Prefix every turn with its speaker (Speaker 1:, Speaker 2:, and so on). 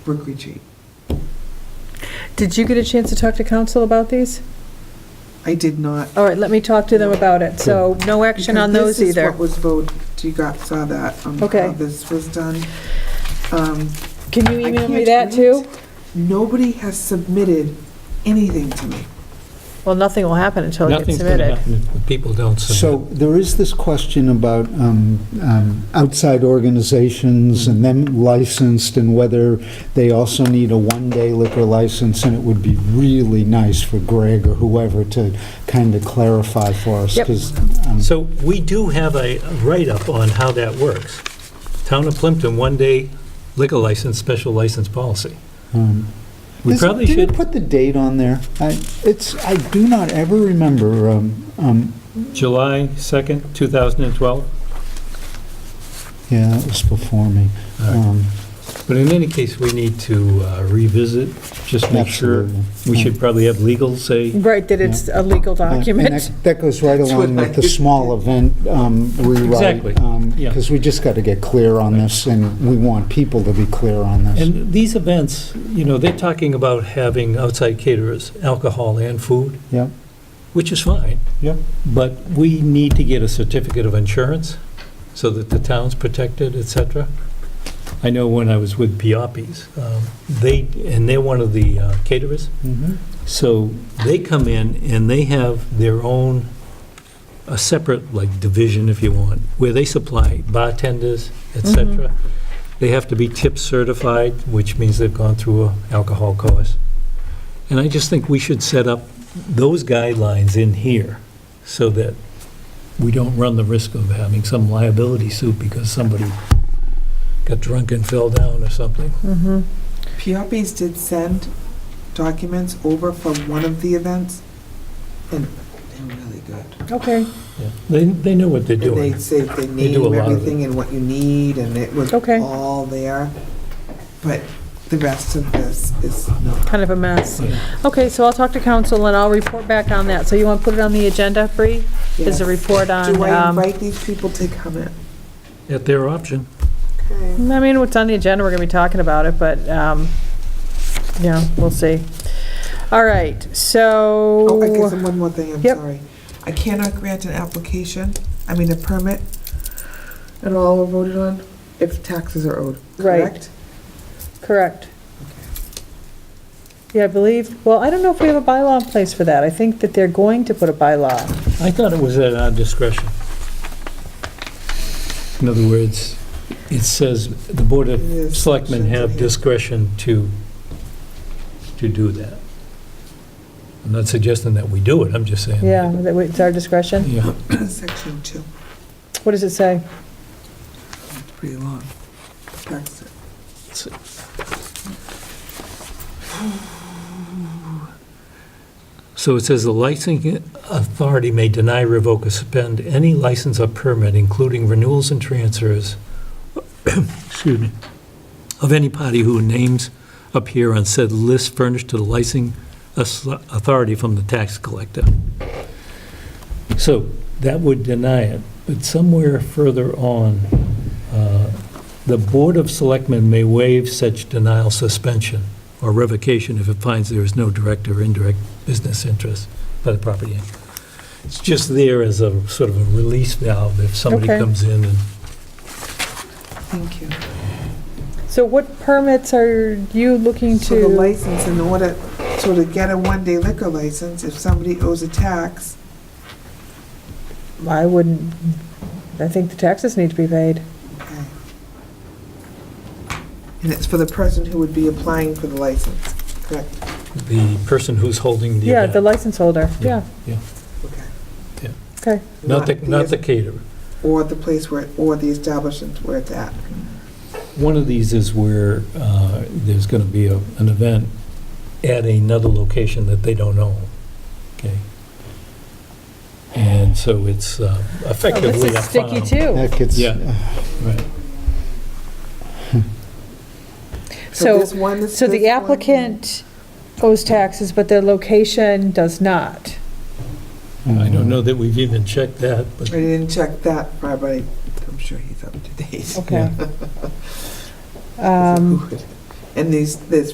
Speaker 1: Brook Retreat.
Speaker 2: Did you get a chance to talk to council about these?
Speaker 1: I did not.
Speaker 2: All right, let me talk to them about it, so no action on
Speaker 1: because
Speaker 2: those either.
Speaker 1: This is what was voted, you got, saw that, um,
Speaker 2: Okay.
Speaker 1: how this was done. Um,
Speaker 2: Can you
Speaker 1: I
Speaker 2: email me
Speaker 1: can't
Speaker 2: that
Speaker 1: read.
Speaker 2: too?
Speaker 1: Nobody has submitted anything to me.
Speaker 2: Well, nothing will happen until it gets
Speaker 3: Nothing's going to
Speaker 2: submitted.
Speaker 3: happen if people don't submit.
Speaker 4: So there is this question about um, um, outside organizations and them licensed and whether they also need a one-day liquor license, and it would be really nice for Greg or whoever to kind of clarify for us.
Speaker 2: Yep.
Speaker 4: 'cause, um,
Speaker 3: So we do have a write-up on how that works. Town of Plimpton, one-day liquor license, special license policy.
Speaker 4: um,
Speaker 3: We
Speaker 4: This-
Speaker 3: probably
Speaker 4: Did
Speaker 3: should,
Speaker 4: you put the date on there? I- It's, I do not ever remember, um, um,
Speaker 3: July 2nd, 2012.
Speaker 4: yeah, that was before me.
Speaker 3: All right.
Speaker 4: Um,
Speaker 3: But in any case, we need to uh, revisit, just make sure.
Speaker 4: Absolutely.
Speaker 3: We should probably have legal say,
Speaker 2: Right, that it's a legal
Speaker 4: Uh, and
Speaker 2: document.
Speaker 4: that- That goes right
Speaker 1: That's
Speaker 4: along
Speaker 1: what
Speaker 4: with the
Speaker 1: I-
Speaker 4: small event um, rewrite.
Speaker 3: Exactly, yeah.
Speaker 4: Because we just got to get clear on this, and we want people to be clear on this.
Speaker 3: and these events, you know, they're talking about having outside caterers, alcohol and food,
Speaker 4: Yep,
Speaker 3: which is fine.
Speaker 4: yep.
Speaker 3: But we need to get a certificate of insurance so that the town's protected, et cetera. I know when I was with Pioppi's, um, they, and they're one of the uh, caterers,
Speaker 4: mhm.
Speaker 3: so they come in and they have their own, a separate, like, division, if you want, where they supply bartenders, et cetera. They have to be tip certified, which means they've gone through a alcohol course. And I just think we should set up those guidelines in here so that we don't run the risk of having some liability suit because somebody got drunk and fell down or something.
Speaker 2: Mhm.
Speaker 1: Pioppi's did send documents over for one of the events, and they're really good.
Speaker 2: Okay,
Speaker 3: Yeah. They, they know what they're
Speaker 1: And they
Speaker 3: doing.
Speaker 1: say they
Speaker 3: They do a
Speaker 1: name
Speaker 3: lot of it.
Speaker 1: everything and what you need, and it was
Speaker 2: Okay.
Speaker 1: all there. But the rest of this is not.
Speaker 2: kind of a mess.
Speaker 3: Yeah.
Speaker 2: Okay, so I'll talk to council and I'll report back on that. So you want to put it on the agenda, Bree? Is a
Speaker 1: Yes.
Speaker 2: report on,
Speaker 1: Do I
Speaker 2: um,
Speaker 1: invite these people to come in?
Speaker 3: At their option.
Speaker 1: Oh,
Speaker 2: I mean, what's on the agenda, we're going to be talking about it, but, um, yeah, we'll see. All right, so.
Speaker 1: Oh, I guess one more thing, I'm
Speaker 2: Yep.
Speaker 1: sorry. I cannot grant an application, I mean a permit, at all voted on, if taxes are owed,
Speaker 2: Right.
Speaker 1: correct?
Speaker 2: Correct. Yeah, I believe, well, I don't know if we have a bylaw in place for that. I think that they're going to put a bylaw.
Speaker 3: I thought it was at our discretion. In other words, it says the Board
Speaker 1: It
Speaker 3: of
Speaker 1: is
Speaker 3: Selectmen have
Speaker 1: subject to-
Speaker 3: discretion to, to do that. I'm not suggesting that we do it, I'm just saying.
Speaker 2: Yeah, that we- it's our discretion.
Speaker 3: Yeah.
Speaker 1: Section two,
Speaker 2: What does it say?
Speaker 1: it's pretty long. Tax-
Speaker 3: So it says the licensing authority may deny, revoke, or suspend any license or permit, including renewals and transfers, excuse me, of any party whose names appear on said list furnished to the licensing as- authority from the tax collector. So that would deny it, but somewhere further on, uh, the Board of Selectmen may waive such denial, suspension, or revocation if it finds there is no direct or indirect business interest by the property owner. It's just there as a sort of a release valve if somebody
Speaker 2: Okay.
Speaker 3: comes in and,
Speaker 1: Thank you.
Speaker 2: So what permits are you looking
Speaker 1: So the
Speaker 2: to?
Speaker 1: license, in order, so to get a one-day liquor license, if somebody owes a tax,
Speaker 2: I wouldn't, I think the taxes need to be paid.
Speaker 1: okay. And it's for the person who would be applying for the license, correct?
Speaker 3: the person who's holding the
Speaker 2: Yeah, the
Speaker 3: event.
Speaker 2: license holder, yeah.
Speaker 3: Yeah.
Speaker 1: Okay.
Speaker 2: Okay,
Speaker 3: Not the, not the caterer.
Speaker 1: Or the place where, or the establishment where it's at.
Speaker 3: One of these is where uh, there's going to be a- an event at another location that they don't own, okay? And so it's uh,
Speaker 2: Oh, this
Speaker 3: effectively a
Speaker 2: is sticky
Speaker 3: farm.
Speaker 2: too.
Speaker 4: That gets,
Speaker 3: Yeah.
Speaker 4: uh,
Speaker 3: Right.
Speaker 2: So,
Speaker 1: this one, this-
Speaker 2: so the
Speaker 1: this one-
Speaker 2: applicant owes taxes, but their location does not.
Speaker 3: I don't know that we've even checked that,
Speaker 1: I
Speaker 3: but
Speaker 1: didn't check that part, but I- I'm sure he's up to date.
Speaker 2: Okay.
Speaker 1: Who
Speaker 2: Um,
Speaker 1: would- and these, there's